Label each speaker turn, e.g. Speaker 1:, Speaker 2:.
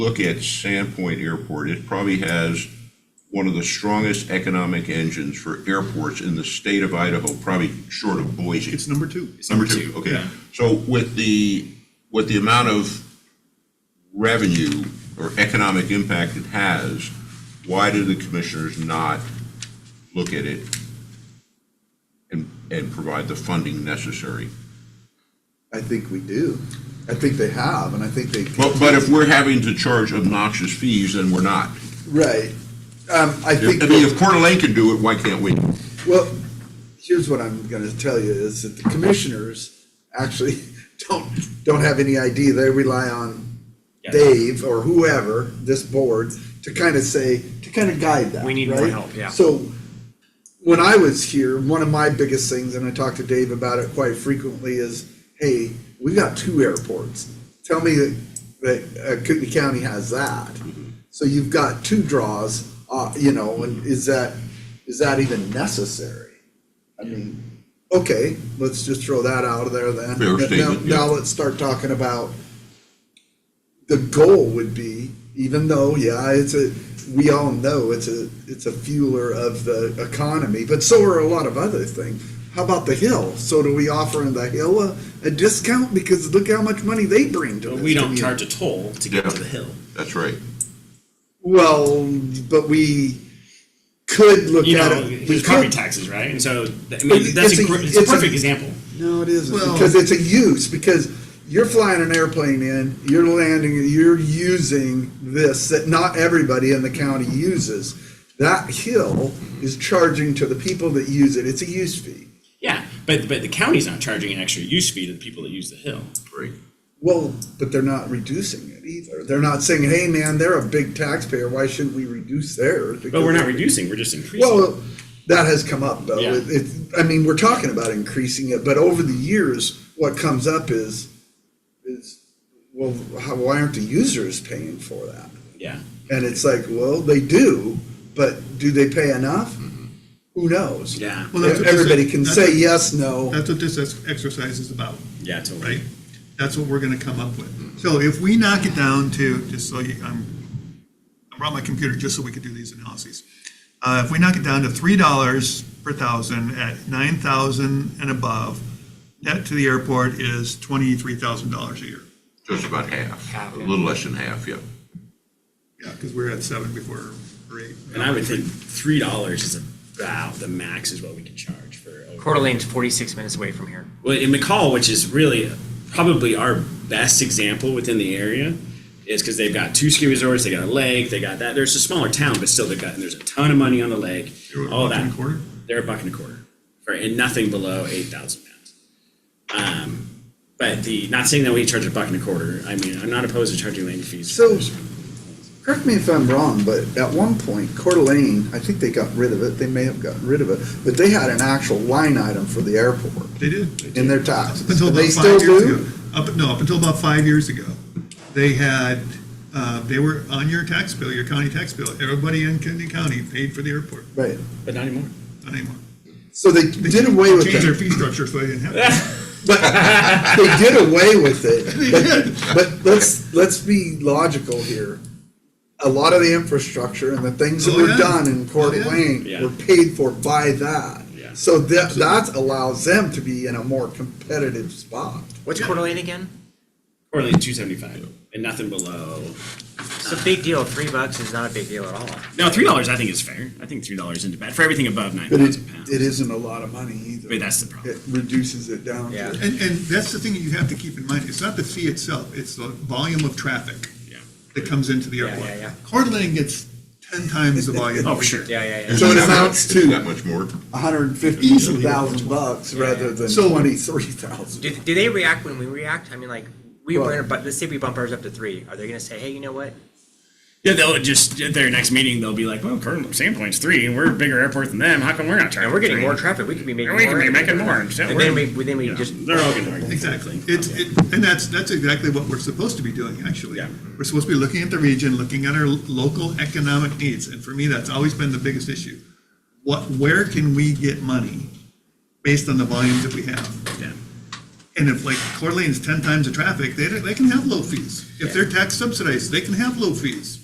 Speaker 1: look at Sandpoint Airport, it probably has one of the strongest economic engines for airports in the state of Idaho, probably short of Boise.
Speaker 2: It's number two.
Speaker 1: It's Number two, okay. So with the, with the amount of revenue or economic impact it has, why do the commissioners not look at it and, and provide the funding necessary?
Speaker 3: I think we do. I think they have, and I think they.
Speaker 1: But, but if we're having to charge obnoxious fees, then we're not.
Speaker 3: Right. Um, I
Speaker 1: I
Speaker 3: think.
Speaker 1: mean, if Coeur d'Alene can do it, why can't we?
Speaker 3: Well, here's what I'm gonna tell you, is that the commissioners actually don't, don't have any idea. They rely on
Speaker 4: Yeah.
Speaker 3: Dave or whoever, this board, to kind of say, to kind of guide that,
Speaker 4: We need more
Speaker 3: right?
Speaker 4: help, yeah.
Speaker 3: So, when I was here, one of my biggest things, and I talked to Dave about it quite frequently, is, hey, we've got two airports. Tell me that, that uh, Kootenai County has that.
Speaker 1: Mm-hmm.
Speaker 3: So you've got two draws, uh, you know, and is that, is that even necessary? I mean, okay, let's just throw that out of there then.
Speaker 1: Fair
Speaker 3: Now-
Speaker 1: statement, yeah.
Speaker 3: Now let's start talking about, the goal would be, even though, yeah, it's a, we all know it's a, it's a fueler of the economy, but so are a lot of other things. How about the hill? So do we offer the hill a, a discount? Because look how much money they bring to
Speaker 4: But
Speaker 3: this
Speaker 4: we don't
Speaker 3: community.
Speaker 4: charge a toll to get
Speaker 1: Yeah.
Speaker 4: to the hill.
Speaker 1: That's right.
Speaker 3: Well, but we could look
Speaker 4: You
Speaker 3: at
Speaker 4: know,
Speaker 3: it. We
Speaker 4: there's property
Speaker 3: could.
Speaker 4: taxes, right? And so, th- I
Speaker 3: But
Speaker 4: mean, that's
Speaker 3: it's
Speaker 4: a,
Speaker 3: a-
Speaker 4: gr- it's a
Speaker 3: it's a-
Speaker 4: perfect example.
Speaker 3: No, it isn't,
Speaker 2: Well-
Speaker 3: because it's a use, because you're flying an airplane in, you're landing, you're using this that not everybody in the county uses. That hill is charging to the people that use it, it's a use fee.
Speaker 4: Yeah, but, but the county's not charging an extra use fee to the people that use the hill.
Speaker 1: Right.
Speaker 3: Well, but they're not reducing it either. They're not saying, hey, man, they're a big taxpayer, why shouldn't we reduce theirs?
Speaker 4: But we're
Speaker 3: Because-
Speaker 4: not reducing, we're just increasing.
Speaker 3: Well, that has come up though.
Speaker 4: Yeah.
Speaker 3: It, it, I mean, we're talking about increasing it, but over the years, what comes up is, is, well, how, why aren't the users paying for that?
Speaker 4: Yeah.
Speaker 3: And it's like, well, they do, but do they pay enough? Who knows?
Speaker 4: Mm-hmm. Yeah.
Speaker 2: Well, that's what this-
Speaker 3: Everybody can
Speaker 2: that's
Speaker 3: say
Speaker 2: what-
Speaker 3: yes, no.
Speaker 2: That's what this ex- exercise is about,
Speaker 4: Yeah, totally.
Speaker 2: right? That's what we're gonna come up with. So if we knock it down to, just so you, I'm, I brought my computer just so we could do these analyses. Uh, if we knock it down to three dollars per thousand at nine thousand and above, net to the airport is twenty-three thousand dollars a year.
Speaker 1: Just about half,
Speaker 4: Half,
Speaker 1: a
Speaker 4: yeah.
Speaker 1: little less than half, yeah.
Speaker 2: Yeah, because we're at seven before, or eight.
Speaker 4: And I would think three dollars is about the max is what we can charge for. over-
Speaker 5: Coeur d'Alene's 46 minutes away from here.
Speaker 4: Well, in McCall, which is really probably our best example within the area, is because they've got two ski resorts, they got a lake, they got that. There's a smaller town, but still they got and there's a ton of money on the lake.
Speaker 2: You're a
Speaker 4: all
Speaker 2: buck
Speaker 4: that.
Speaker 2: and a quarter?
Speaker 4: They're a buck and a quarter, for, and nothing below eight thousand pounds. Um, but the not saying that we charge a buck and a quarter. I mean, I'm not opposed to charging landing fees.
Speaker 3: So- Correct me if I'm wrong, but at one point, Coeur d'Alene, I think they got rid of it, they may have gotten rid of it, but they had an actual line item for the airport
Speaker 2: They did.
Speaker 3: in their
Speaker 2: Up
Speaker 3: taxes.
Speaker 2: until
Speaker 3: And they
Speaker 2: about
Speaker 3: still
Speaker 2: five years ago,
Speaker 3: do?
Speaker 2: up, no, up until about five years ago, they had, uh, they were on your tax bill, your county tax bill. Everybody in Kennedy County paid for the airport,
Speaker 3: Right.
Speaker 4: but not anymore.
Speaker 2: not anymore.
Speaker 3: So they did away with
Speaker 2: Changed their
Speaker 3: it,
Speaker 2: fee structure so they didn't have to.
Speaker 3: they did away with it, but, but let's, let's be logical here. A lot of the infrastructure and the things that
Speaker 2: Oh,
Speaker 3: were
Speaker 2: yeah.
Speaker 3: done in Coeur
Speaker 2: Oh, yeah.
Speaker 3: d'Alene
Speaker 4: Yeah.
Speaker 3: were paid for by that.
Speaker 4: Yeah.
Speaker 3: So that, that allows them to be in a more competitive spot.
Speaker 5: What's Coeur d'Alene again?
Speaker 4: Or like two seventy five, and nothing below.
Speaker 5: It's a big deal. Three bucks is not a big deal at all.
Speaker 4: No, three dollars I think is fair. I think three dollars into bad for everything above nine
Speaker 3: But it,
Speaker 4: thousand pounds.
Speaker 3: it isn't a lot of money either.
Speaker 4: But that's the problem.
Speaker 3: It reduces it down
Speaker 5: Yeah.
Speaker 3: to,
Speaker 2: And, and that's the thing that you have to keep in mind. It's not the fee itself, it's the volume of traffic
Speaker 4: Yeah.
Speaker 2: that comes into the
Speaker 5: Yeah,
Speaker 2: airport.
Speaker 5: yeah, yeah.
Speaker 2: Coeur d'Alene gets ten times the volume.
Speaker 4: Oh, for sure.
Speaker 5: Yeah, yeah, yeah.
Speaker 3: So it amounts to-
Speaker 1: That much more.
Speaker 3: hundred and fifty thousand bucks
Speaker 5: Yeah.
Speaker 3: rather than
Speaker 2: So-
Speaker 3: twenty-three thousand.
Speaker 5: Do, do they react when we react? I mean, like, we
Speaker 3: Well-
Speaker 5: were in a, but let's say we bump ours up to three. Are they going to say, hey, you know what?
Speaker 4: Yeah, they'll just at their next meeting they'll be like, "Well, current Sandpoint's three, and we're a bigger airport than them. How come we're not charging?
Speaker 5: And we're getting
Speaker 4: three?"
Speaker 5: more traffic. We could be making
Speaker 4: And we
Speaker 5: more.
Speaker 4: could be making more. And so
Speaker 5: And
Speaker 4: we're-
Speaker 5: then we, then we
Speaker 4: Yeah,
Speaker 5: just.
Speaker 4: they're all going to
Speaker 2: Exactly. It's, it, and that's, that's exactly what we're supposed to be doing, actually.
Speaker 4: Yeah.
Speaker 2: We're supposed to be looking at the region, looking at our lo- local economic needs, and for me, that's always been the biggest issue. What, where can we get money based on the volumes that we have?
Speaker 4: Yeah.
Speaker 2: And if like Coeur d'Alene's ten times the traffic, they, they can have low fees. If they're tax subsidized, they can have low fees.